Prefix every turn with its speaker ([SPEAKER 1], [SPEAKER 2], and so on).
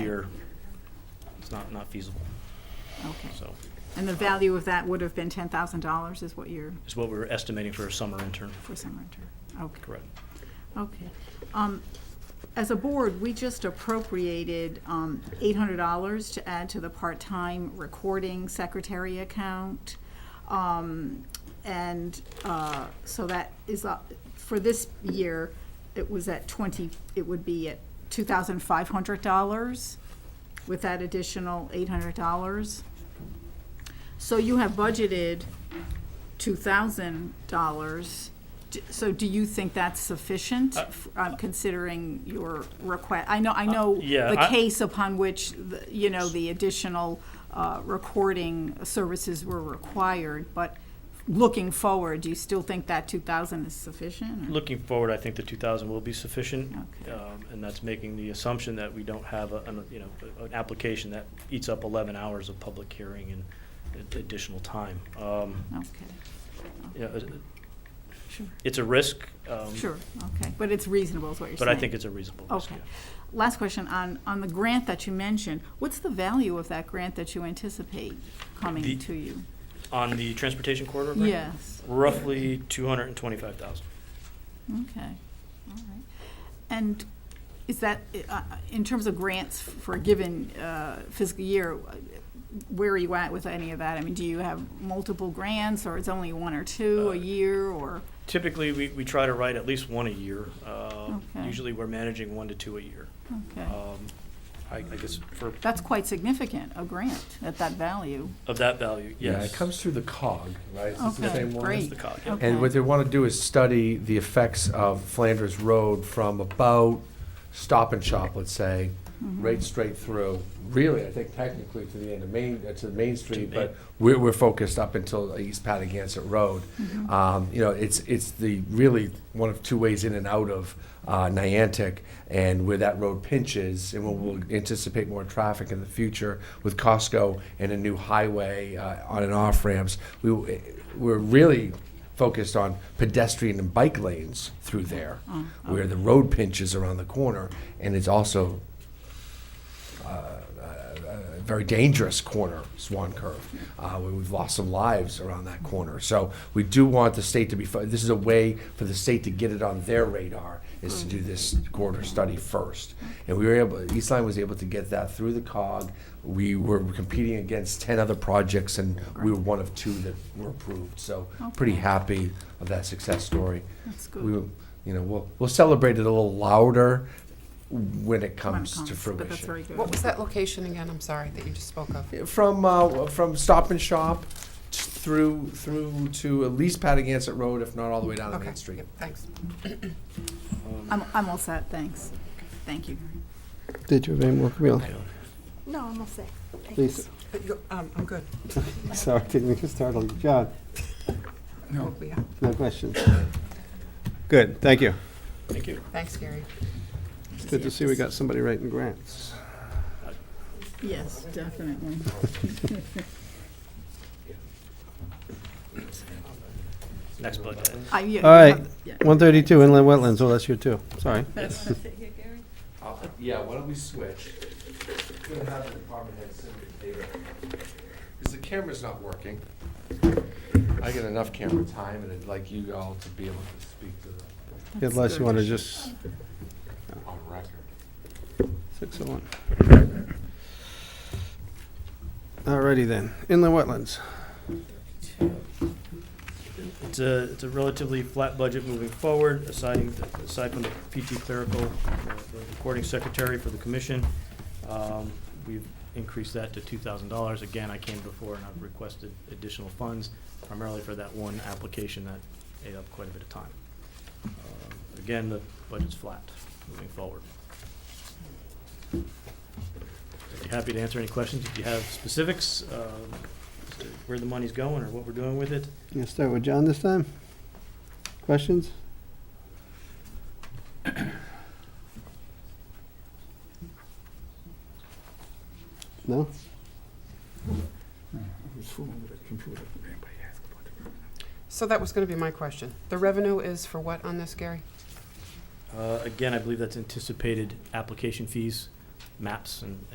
[SPEAKER 1] year, it's not, not feasible.
[SPEAKER 2] Okay.
[SPEAKER 1] So
[SPEAKER 2] And the value of that would have been ten thousand dollars is what you're,
[SPEAKER 1] it's what we were estimating for a summer intern.
[SPEAKER 2] for some renter. Okay,
[SPEAKER 1] Correct.
[SPEAKER 2] okay. Um, as a board, we just appropriated, um, eight hundred dollars to add to the part-time recording secretary account. Um, and, uh, so that is, up- for this year, it was at twenty, it would be at two thousand five hundred dollars with that additional eight hundred dollars. So you have budgeted two thousand dollars. So do you think that's sufficient,
[SPEAKER 1] Uh,
[SPEAKER 2] f- uh, considering your request? I know, I know
[SPEAKER 1] yeah,
[SPEAKER 2] the
[SPEAKER 1] I-
[SPEAKER 2] case upon which, the- you know, the additional uh, recording services were required, but looking forward, do you still think that two thousand is sufficient? or-
[SPEAKER 1] Looking forward, I think the two thousand will be sufficient.
[SPEAKER 2] Okay.
[SPEAKER 1] Um, and that's making the assumption that we don't have a, an, you know, an application that eats up eleven hours of public hearing and ad- additional time. Um,
[SPEAKER 2] Okay,
[SPEAKER 1] you know, it-
[SPEAKER 2] sure,
[SPEAKER 1] it's a risk, um,
[SPEAKER 2] sure, okay, but it's reasonable is what you're
[SPEAKER 1] but
[SPEAKER 2] saying.
[SPEAKER 1] I think it's a reasonable risk.
[SPEAKER 2] Okay.
[SPEAKER 1] yeah.
[SPEAKER 2] Last question on, on the grant that you mentioned, what's the value of that grant that you anticipate
[SPEAKER 1] The-
[SPEAKER 2] coming to you?
[SPEAKER 1] On the transportation corridor grant?
[SPEAKER 2] Yes,
[SPEAKER 1] Roughly two hundred and twenty-five thousand.
[SPEAKER 2] okay, all right. And is that, uh, in terms of grants for a given uh, fiscal year, where are you at with any of that? I mean, do you have multiple grants, or it's only one or two
[SPEAKER 1] Uh,
[SPEAKER 2] a year, or?
[SPEAKER 1] Typically, we, we try to write at least one a year. Um,
[SPEAKER 2] Okay.
[SPEAKER 1] Usually, we're managing one to two a year.
[SPEAKER 2] Okay,
[SPEAKER 1] Um, I, I guess for,
[SPEAKER 2] that's quite significant, a grant at that value.
[SPEAKER 1] of that value, yes.
[SPEAKER 3] Yeah, it comes through the cog, right? Is this the
[SPEAKER 2] Okay,
[SPEAKER 3] same one?
[SPEAKER 1] It's
[SPEAKER 2] great.
[SPEAKER 1] the cog, yeah.
[SPEAKER 2] Okay.
[SPEAKER 3] And what they want to do is study the effects of Flanders Road from about Stop and Shop, let's say,
[SPEAKER 2] Mm-hmm.
[SPEAKER 3] right straight through, really, I think technically to the end of Main, uh, to Main Street,
[SPEAKER 1] Main.
[SPEAKER 3] but we're, we're focused up until East Patagonia Road. Um, You know, it's, it's the, really, one of two ways in and out of uh, Niantic, and where that road pinches, and we'll we'll anticipate more traffic in the future with Costco and a new highway uh, on and off ramps. We, w- we're really focused on pedestrian and bike lanes through there, where the road pinches around the corner, and it's also a very dangerous corner, Swan Curve, uh, where we've lost some lives around that corner. So we do want the state to be, fo- this is a way for the state to get it on their radar, is to do this corridor study first. And we were able, East Line was able to get that through the cog. We were competing against ten other projects, and we were one of two that were approved. So pretty
[SPEAKER 2] Okay.
[SPEAKER 3] happy of that success story.
[SPEAKER 2] That's good.
[SPEAKER 3] We, will- you know, we'll, we'll celebrate it a little louder when it
[SPEAKER 2] When it
[SPEAKER 3] comes to
[SPEAKER 2] comes, But that's very
[SPEAKER 3] fruition.
[SPEAKER 2] good.
[SPEAKER 4] What was that location again? I'm sorry, that you just spoke of.
[SPEAKER 3] from uh, from Stop and Shop t- through through to at least Patagonic Road, if not all the way down to
[SPEAKER 4] Okay,
[SPEAKER 3] Main Street.
[SPEAKER 4] yep, Thanks.
[SPEAKER 2] I'm, I'm all set, thanks. Thank you.
[SPEAKER 5] Did you have any more, Camille?
[SPEAKER 6] No, I'm all set.
[SPEAKER 5] Lisa,
[SPEAKER 4] But you- um, I'm good.
[SPEAKER 5] sorry, didn't mean to startle you. John,
[SPEAKER 4] No.
[SPEAKER 5] no questions? Good, thank you.
[SPEAKER 1] Thank you.
[SPEAKER 4] Thanks, Gary.
[SPEAKER 5] It's good to see we got somebody writing grants.
[SPEAKER 2] Yes, definitely.
[SPEAKER 1] Next budget.
[SPEAKER 2] I- yeah,
[SPEAKER 5] All right.
[SPEAKER 2] yeah.
[SPEAKER 5] 132 inland wetlands, oh, that's you too, sorry.
[SPEAKER 3] Uh, yeah, why don't we switch? We're gonna have the department head send me the data. Because the camera's not working. I get enough camera time, and I'd like you all to be able to speak to the
[SPEAKER 2] That's
[SPEAKER 5] Unless you
[SPEAKER 2] good.
[SPEAKER 5] want to just,
[SPEAKER 3] on record.
[SPEAKER 5] 601. All righty then, inland wetlands.
[SPEAKER 1] It's a, it's a relatively flat budget moving forward, aside, aside from the PT clerical, uh, the recording secretary for the commission. Um, We've increased that to two thousand dollars. Again, I came before and I've requested additional funds, primarily for that one application that ate up quite a bit of time. Um, Again, the budget's flat moving forward. I'd be Happy to answer any questions if you have specifics, um, as to where the money's going or what we're doing with it.
[SPEAKER 5] You gonna start with John this time? Questions? No?
[SPEAKER 4] So that was going to be my question. The revenue is for what on this, Gary?
[SPEAKER 1] Uh, Again, I believe that's anticipated application fees, maps, and